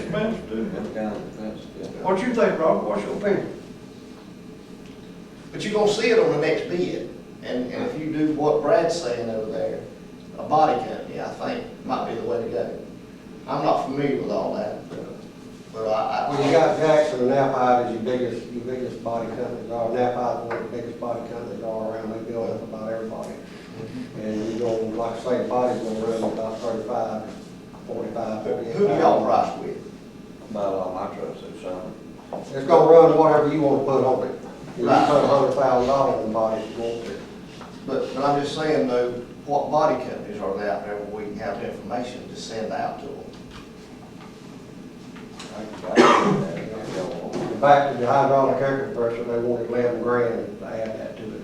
fence too. That kind of fence, yeah. What you think, Robert? What's your opinion? But you're gonna see it on the next bid, and, and if you do what Brad's saying over there, a body company, I think, might be the way to go. I'm not familiar with all that, but, but I, I. When you got Jackson and Nappi as your biggest, your biggest body companies are, Nappi's one of the biggest body companies all around, they build up about everybody. And you go, like I say, body's gonna run about thirty-five, forty-five, forty-eight. Who do y'all price with? About all my trucks is something. It's gonna run whatever you wanna put on it. If you put Right. a hundred thousand dollars in body, it's going to. But, but I'm just saying though, what body companies are there out there where we can have the information to send out to them? I can buy that, I don't want And Back to the hydraulic air compressor, they wanted eleven grand to add that to it.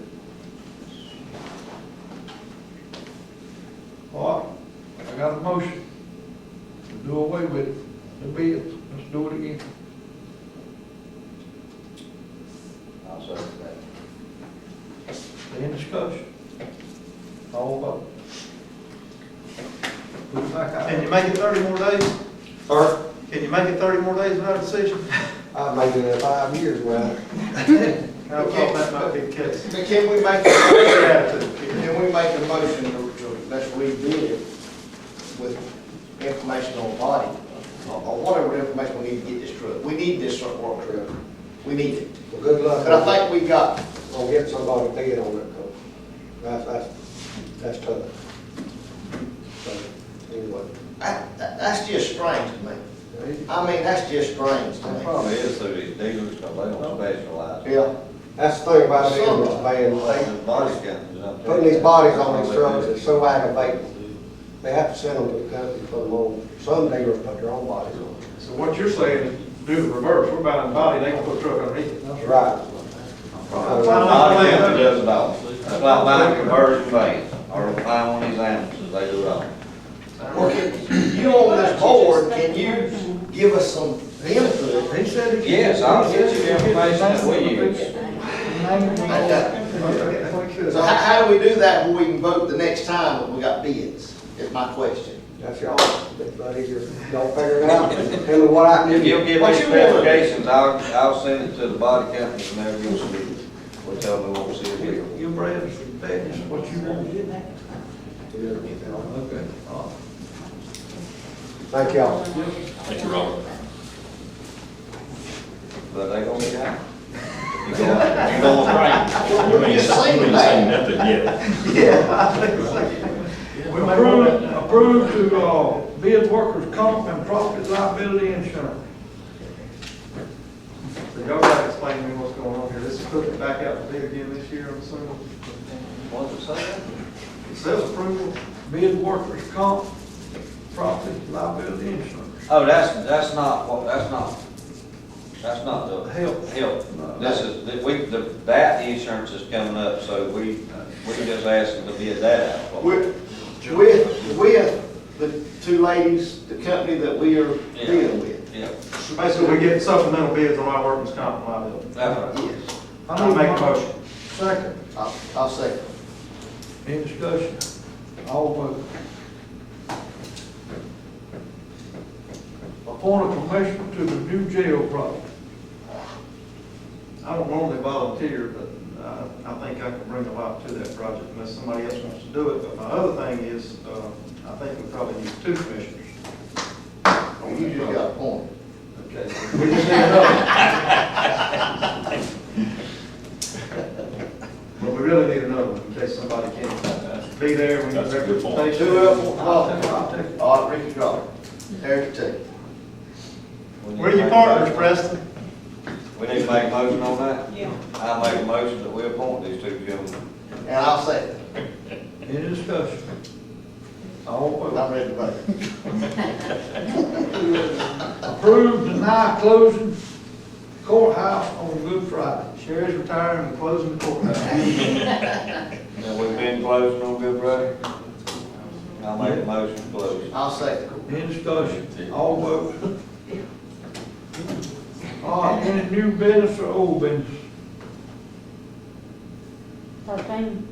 All right, I got a motion to do away with the bids. Let's do it again. it. I'll say that. Any discussion? All vote. Put it back out. Can you make it thirty more days? Sir, Can you make it thirty more days without a decision? I've made it in five years, well, I thought that might be the case. But can we make, can we make a motion to, to, let's rebid it with information on body, or or whatever information we need to get this truck, we need this sort of work truck, we need it. well, good luck. But I think we got, on getting somebody to bid on it, 'cause that's, that's, that's tough. So, anyway. that, that- that's just strange to me, I mean, that's just strange to It me. probably is through these dealers, because they don't specialize. Yeah, That's the thing about ambulance vans, These they, body companies, I'm telling you. putting these bodies on these Probably do. trucks is so aggravating. They have to send them to the company for them on, some dealers put their own bodies on. So what you're saying is do the reverse, we're buying the body, they gonna put a truck underneath it. That's right. not Body playing. company does it all. That's like buying a conversion van, or buying one of these ambulances, they do it all. well, can, you on this board, can you give us some input? He said again. Yes, I'll get you the information that we use. So how, how do we do that when we can vote the next time when we got bids, is my question. That's y'all, buddy, you don't figure it out, tell me what I can If do. you'll give What me you want? specifications, I'll, I'll send it to the body companies and they'll give us a deal. We'll tell them we won't see a deal. You bred us, fed us what you want. Okay. Thank y'all. Thank you, Robert. But they gonna be down. You gonna, you gonna You ain't saying, you ain't saying nothing yet. Approve, approve to, uh, bid workers' comp and property liability insurance. So y'all gotta explain to me what's going on here. This is putting it back out to bid again this year, I'm assuming. What's it say? It says approval. Bid workers' comp, property liability insurance. Oh, that's, that's not, what- that's not, that's not the Health. help. This is, the- we, the, that insurance is coming up, so we, uh, we just asked them to bid that out. With, with, with the two ladies, the company that we are dealing with. Yeah, Basically, we're getting supplemental bids on our workers' comp and liability. that's right. Yes, I need to make a motion. Second. I'll, I'll second. Any discussion? All vote. Appoint a commissioner to the new jail project. I don't normally volunteer, but uh, I think I can bring a lot to that project unless somebody else wants to do it. But my other thing is, uh, I think we probably need two commissioners. oh, You just got a point. Okay. We just need another. But we really need another one in case somebody can't be there when you That's a good point. representation. Two up, one I'll take- down. I'll take it. All right, Ricky Draw, Eric T. We need Where are to your make a partners, motion. Preston? We need to make a motion on that? Yeah. I make a motion that we appoint these two gentlemen. And I'll second. Any discussion? All vote. I'm ready to vote. Approve, deny closing courthouse on Good Friday. Sherry's retiring and closing the courthouse. Now, we've been closing on Good Friday. I make a motion to close. I'll second. Any discussion? All vote. All right, any new business or old business? Thirteen,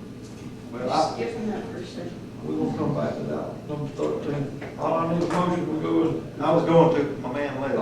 Well, I- give them that person. We will come back to that. Number thirteen. All I need a motion, we go with I was going to, my man left.